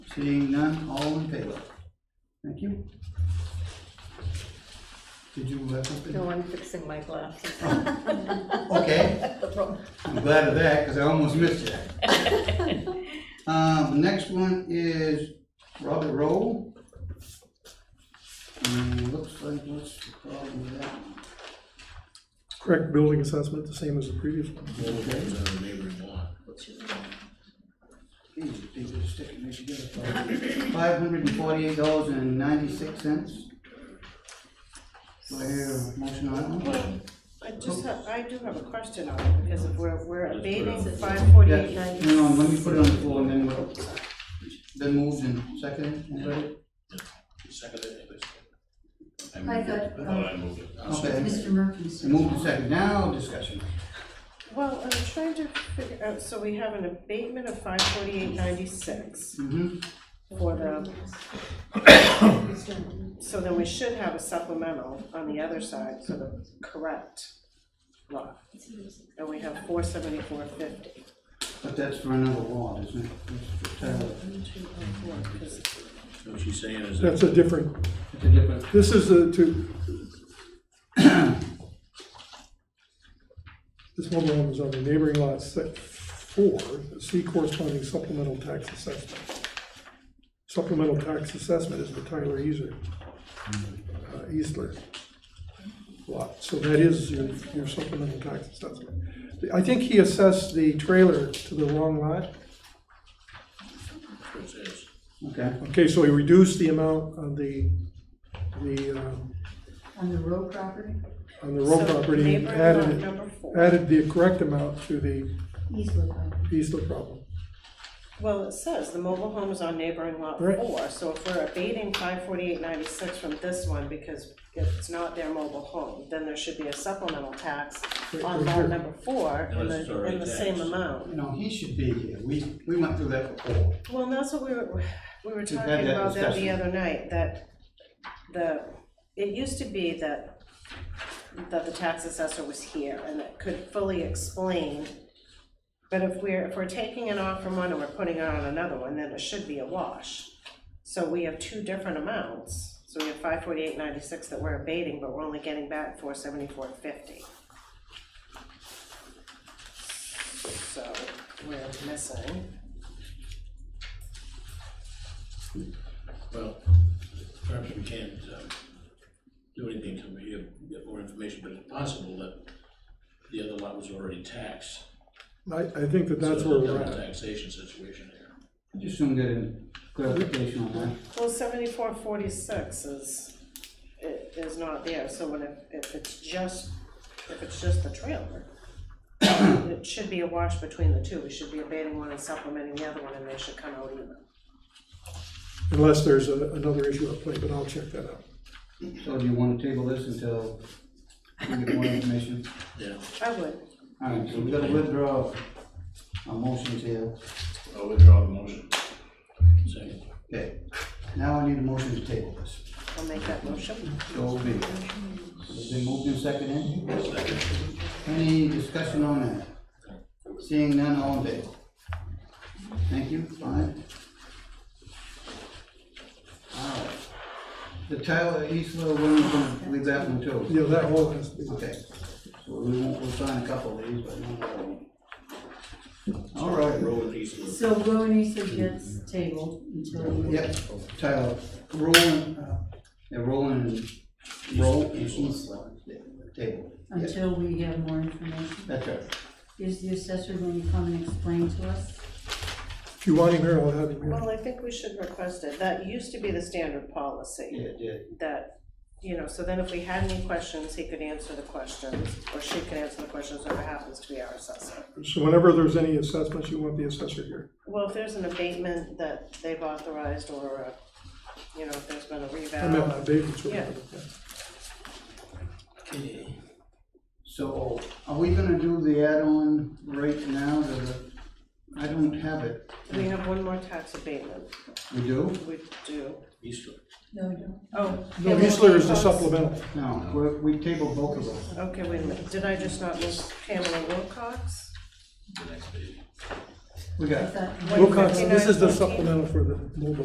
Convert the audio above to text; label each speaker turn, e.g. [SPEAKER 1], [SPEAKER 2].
[SPEAKER 1] Seeing none, all in favor? Thank you. Did you have something?
[SPEAKER 2] No, I'm fixing my glasses.
[SPEAKER 1] Okay,
[SPEAKER 2] That's the problem.
[SPEAKER 1] I'm glad of that, because I almost missed it. Um, the next one is Robert Rowe. And looks like, what's the problem with that? one?
[SPEAKER 3] Correct building assessment, the same as the previous one.
[SPEAKER 1] Okay.
[SPEAKER 4] on the neighboring lot.
[SPEAKER 1] These people are sticking this together. Five hundred and forty-eight dollars and ninety-six cents. Do I hear a motion on that one?
[SPEAKER 5] Well, I just have, I do have a question on it, because if we're, we're
[SPEAKER 4] Just put it
[SPEAKER 5] abating
[SPEAKER 4] on.
[SPEAKER 5] five
[SPEAKER 1] Yeah,
[SPEAKER 5] forty-eight ninety.
[SPEAKER 1] hang on, let me put it on the floor and then we'll, then moved and second, anybody?
[SPEAKER 4] Second, I think.
[SPEAKER 6] I
[SPEAKER 4] moved it.
[SPEAKER 6] thought-
[SPEAKER 4] I thought I moved it. I'll
[SPEAKER 1] Okay.
[SPEAKER 6] Mr. Murphy's.
[SPEAKER 1] Moved and second, now discussion.
[SPEAKER 5] Well, I'm trying to figure out, so we have an abatement of five forty-eight ninety-six
[SPEAKER 1] Mm-hmm,
[SPEAKER 5] for the, so then we should have a supplemental on the other side for the correct lot. And we have four seventy-four fifty.
[SPEAKER 1] but that's for another lot, isn't it? It's terrible.
[SPEAKER 4] second. What she's saying is
[SPEAKER 3] That's
[SPEAKER 4] that
[SPEAKER 3] a different,
[SPEAKER 1] It's a different,
[SPEAKER 3] this is the two. This one loan is on the neighboring lot set four, see corresponding supplemental tax assessment. Supplemental tax assessment is the Tyler Easer, uh, Easler lot, so that is your, your supplemental tax assessment. I think he assessed the trailer to the wrong lot.
[SPEAKER 4] what it says.
[SPEAKER 1] okay,
[SPEAKER 3] Okay, so we reduced the amount on the, the, um,
[SPEAKER 6] On the road property,
[SPEAKER 3] on the road property, and added,
[SPEAKER 5] number
[SPEAKER 3] it-
[SPEAKER 5] four.
[SPEAKER 3] added the correct amount to the
[SPEAKER 6] Eastwood property.
[SPEAKER 3] Eastler problem.
[SPEAKER 5] Well, it says the mobile home is on neighboring lot
[SPEAKER 3] Right.
[SPEAKER 5] four, so if we're abating five forty-eight ninety-six from this one because it's not their mobile home, then there should be a supplemental tax
[SPEAKER 3] Right,
[SPEAKER 5] on
[SPEAKER 3] right
[SPEAKER 5] lot
[SPEAKER 3] here.
[SPEAKER 5] number four in
[SPEAKER 4] Unless it's
[SPEAKER 5] the,
[SPEAKER 4] already
[SPEAKER 5] in the same
[SPEAKER 4] taxed.
[SPEAKER 5] amount.
[SPEAKER 1] you know, he should be here, we, we went through that before.
[SPEAKER 5] Well, and that's what we were, we were
[SPEAKER 1] We've had
[SPEAKER 5] talking
[SPEAKER 1] that
[SPEAKER 5] about that the
[SPEAKER 1] discussion.
[SPEAKER 5] other night, that the, it used to be that, that the tax assessor was here and that could fully explain. But if we're, if we're taking it off from one and we're putting it on another one, then it should be a wash. So we have two different amounts, so we have five forty-eight ninety-six that we're abating, but we're only getting back four seventy-four fifty. So we're missing.
[SPEAKER 4] Well, perhaps we can't um, do anything till we get- get more information, but it's possible that the other lot was already taxed.
[SPEAKER 3] I, I think that that's
[SPEAKER 4] So
[SPEAKER 3] where
[SPEAKER 4] there's
[SPEAKER 3] we're
[SPEAKER 4] a double
[SPEAKER 3] at.
[SPEAKER 4] Taxation situation here.
[SPEAKER 1] I Just soon get a clarification on that.
[SPEAKER 5] Well, seventy-four forty-six is, i- is not there, so when it, if it's just, if it's just the trailer, it should be a wash between the two, we should be abating one and supplementing the other one, and they should come out even.
[SPEAKER 3] Unless there's a- another issue at play, but I'll check that out.
[SPEAKER 1] So do you wanna table this until we get more information?
[SPEAKER 4] Yeah,
[SPEAKER 5] I would,
[SPEAKER 1] All right, so we gotta withdraw our motions here.
[SPEAKER 4] I'll withdraw the motion. Second.
[SPEAKER 1] Okay, now I need a motion to table this.
[SPEAKER 5] I'll make that motion.
[SPEAKER 1] So be it. Has been moved and seconded? Any discussion on that? Seeing none, all in favor? Thank you, five. All right. The Tyler Eastler one, we're gonna leave that one too.
[SPEAKER 3] Yeah, that all has to be.
[SPEAKER 1] Okay, so we won't, we'll sign a couple of these, but not all of them. All right,
[SPEAKER 4] Roll it easily.
[SPEAKER 6] So Rowan Eastwood gets tabled until.
[SPEAKER 1] yep, Tyler, Roland, uh, yeah, Roland, and- Roll and Eastler, table, yes,
[SPEAKER 6] Until we have more information.
[SPEAKER 1] that's right.
[SPEAKER 6] Is the assessor going to come and explain to us?
[SPEAKER 3] If you want him here, I'll have him here.
[SPEAKER 5] Well, I think we should request it, that used to be the standard policy,
[SPEAKER 1] Yeah, yeah.
[SPEAKER 5] that, you know, so then if we had any questions, he could answer the questions, or she could answer the questions, whoever happens to be our assessor.
[SPEAKER 3] So whenever there's any assessments, you want the assessor here.
[SPEAKER 5] Well, if there's an abatement that they've authorized or, a- you know, if there's been a
[SPEAKER 3] I meant my
[SPEAKER 5] revow.
[SPEAKER 3] babies.
[SPEAKER 5] Yeah.
[SPEAKER 4] Okay.
[SPEAKER 1] So are we gonna do the add-on right now? to the- I don't have it.
[SPEAKER 5] We have one more tax abatement,
[SPEAKER 1] We do?
[SPEAKER 5] we do.
[SPEAKER 4] Eastwood.
[SPEAKER 6] No, no.
[SPEAKER 5] Oh.
[SPEAKER 3] No,
[SPEAKER 5] yeah, we-
[SPEAKER 3] Eastler is the supplemental.
[SPEAKER 1] No, we're- we tabled both of them.
[SPEAKER 5] Okay, wait a minute, did I just not miss Pamela Wilcox?
[SPEAKER 4] the next page.
[SPEAKER 1] We got it.
[SPEAKER 6] I thought-
[SPEAKER 3] Wilcox, this is the supplemental for the mobile.